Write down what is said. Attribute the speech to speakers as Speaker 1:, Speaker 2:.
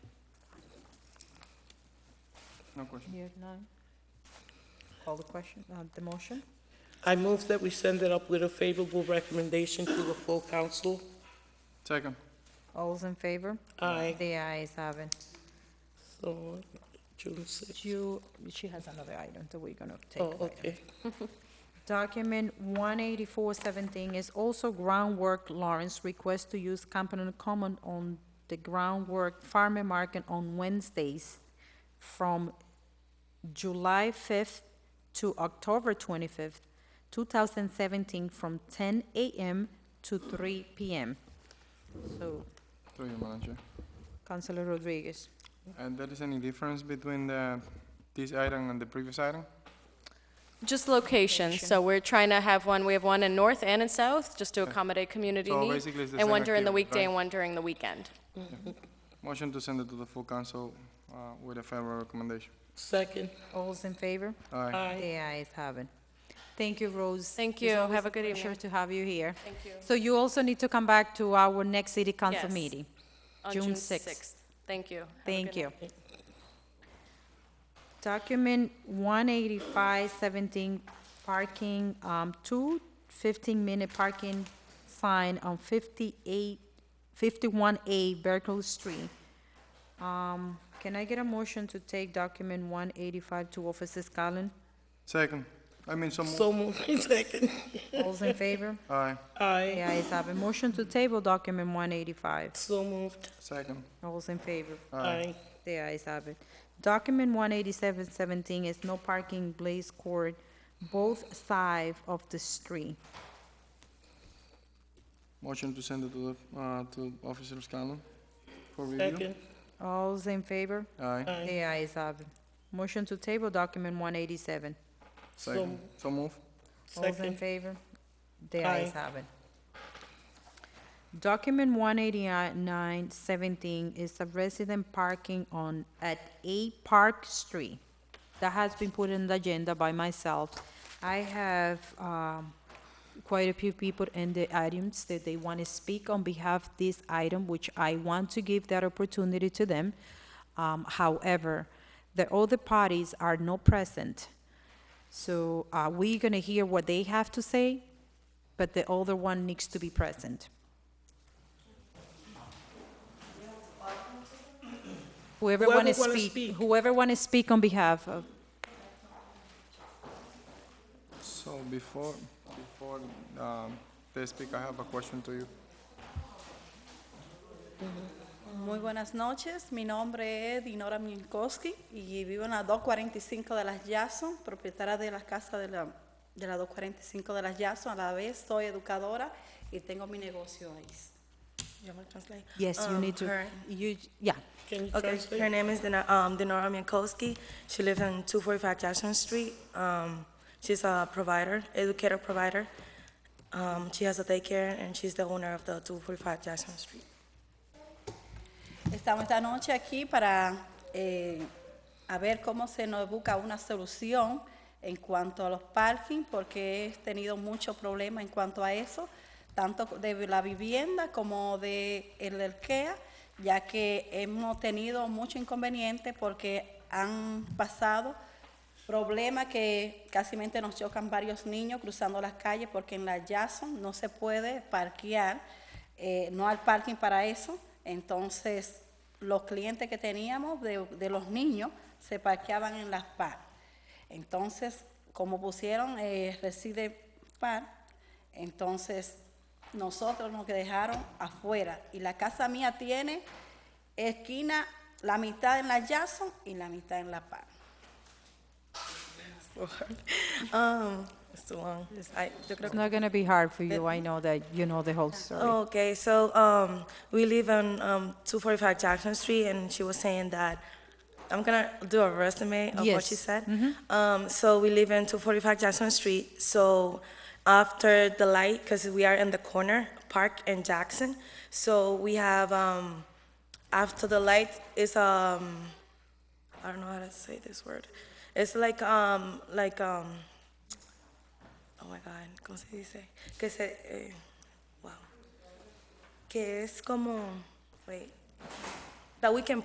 Speaker 1: No question.
Speaker 2: You have none? Call the question, uh, the motion?
Speaker 3: I move that we send it up with a favorable recommendation to the full council.
Speaker 1: Second.
Speaker 2: All's in favor?
Speaker 3: Aye.
Speaker 2: The ayes have it.
Speaker 3: So, June 6th.
Speaker 2: Ju, she has another item that we're gonna take
Speaker 3: Oh,
Speaker 2: later.
Speaker 3: okay.
Speaker 2: Document 18417 is also groundwork Lawrence request to use Campanile Common on the groundwork farmer market on Wednesdays from July 5th to October 25th, 2017, from 10 a.m. to 3 p.m. So,
Speaker 1: Through you, Madam Chair.
Speaker 2: Councilor Rodriguez.
Speaker 1: And there is any difference between the, this item and the previous item?
Speaker 4: Just location, so we're trying to have one, we have one in north and in south, just to accommodate community
Speaker 1: So
Speaker 4: needs.
Speaker 1: basically it's the
Speaker 4: And one
Speaker 1: same
Speaker 4: during the
Speaker 1: activity,
Speaker 4: weekday
Speaker 1: right?
Speaker 4: and one during the weekend.
Speaker 1: Motion to send it to the full council uh, with a favorable recommendation.
Speaker 3: Second.
Speaker 2: All's in favor?
Speaker 1: Aye.
Speaker 2: The ayes have it. Thank you, Rose.
Speaker 4: Thank
Speaker 2: It's
Speaker 4: you.
Speaker 2: always
Speaker 4: Have a good
Speaker 2: pleasure
Speaker 4: evening.
Speaker 2: to have you here.
Speaker 4: Thank you.
Speaker 2: So you also need to come back to our next city council
Speaker 4: Yes.
Speaker 2: meeting.
Speaker 4: On
Speaker 2: June
Speaker 4: June
Speaker 2: 6th.
Speaker 4: 6th. Thank you. Have a
Speaker 2: Thank
Speaker 4: good night.
Speaker 2: you. Document 18517, parking, um, two 15-minute parking sign on 58, 51A Berkeley Street. Um, Can I get a motion to take document 185 to Officer Scanlon?
Speaker 1: Second. I mean, some,
Speaker 3: So moved. Second.
Speaker 2: All's in favor?
Speaker 1: aye.
Speaker 3: Aye.
Speaker 2: The ayes have it. Motion to table document 185.
Speaker 3: So moved.
Speaker 1: Second.
Speaker 2: All's in favor?
Speaker 3: Aye.
Speaker 2: The ayes have it. Document one eighty-seven seventeen is no parking Blaze Court, both sides of the street.
Speaker 1: Motion to send it to the, uh, to Officer Scanlon for review.
Speaker 3: Second.
Speaker 2: All's in favor?
Speaker 1: Aye.
Speaker 3: Aye.
Speaker 2: The ayes have it. Motion to table document one eighty-seven.
Speaker 1: Second. So move.
Speaker 2: All's in
Speaker 3: Second.
Speaker 2: favor? The
Speaker 3: Aye.
Speaker 2: ayes have it. Document one eighty-nine seventeen is a resident parking on, at eight Park Street. That has been put in the agenda by myself. I have, um, quite a few people in the items that they want to speak on behalf of this item, which I want to give that opportunity to them. Um, however, the other parties are not present. So uh, we're going to hear what they have to say, but the other one needs to be present. Whoever
Speaker 3: Whoever
Speaker 2: want to
Speaker 3: wanna
Speaker 2: speak,
Speaker 3: speak.
Speaker 2: whoever want to speak on behalf of,
Speaker 1: So before, before um, they speak, I have a question to you.
Speaker 5: Muy buenas noches, mi nombre es Dinora Minkowski y vivo en la 245 de las Yason, propietaria de la casa de la, de la 245 de las Yason. A la vez soy educadora y tengo mi negocio ahí.
Speaker 6: You want me to translate?
Speaker 2: yes, you
Speaker 6: Um,
Speaker 2: need to,
Speaker 6: her-
Speaker 2: you, yeah.
Speaker 3: Can you
Speaker 6: Okay,
Speaker 3: translate?
Speaker 6: her name is Dina- um, Dinora Minkowski. She lives on 245 Jackson Street. Um, She's a provider, educator provider. Um, She has a daycare, and she's the owner of the 245 Jackson Street.
Speaker 5: Estamos esta noche aquí para eh, a ver cómo se nos busca una solución en cuanto a los parking, porque he tenido muchos problemas en cuanto a eso, tanto de la vivienda como de el del KEA, ya que hemos tenido mucho inconveniente porque han pasado problemas que casi nos chocan varios niños cruzando las calles porque en la Jason no se puede parquear eh, no al parking para eso. Entonces, los clientes que teníamos de, de los niños se parqueaban en las par. Entonces, como pusieron eh, reside par, entonces nosotros nos dejaron afuera. Y la casa mía tiene esquina, la mitad en la Jason y la mitad en la par.
Speaker 6: Um, It's too long. It's- I- yo creo
Speaker 2: It's
Speaker 6: que-
Speaker 2: not going to be hard for you, I know that you know the whole story.
Speaker 6: Okay, so um, we live on um, 245 Jackson Street, and she was saying that, I'm gonna do a resume of what she
Speaker 2: Yes.
Speaker 6: said. Um, so we live in 245 Jackson Street, so after the light, because we are in the corner, Park and Jackson, so we have, um, after the light is, um, I don't know how to say this word. It's like, um, like, um, oh my God, ¿cómo se dice? Que se, eh, wow que es como, wait, that we can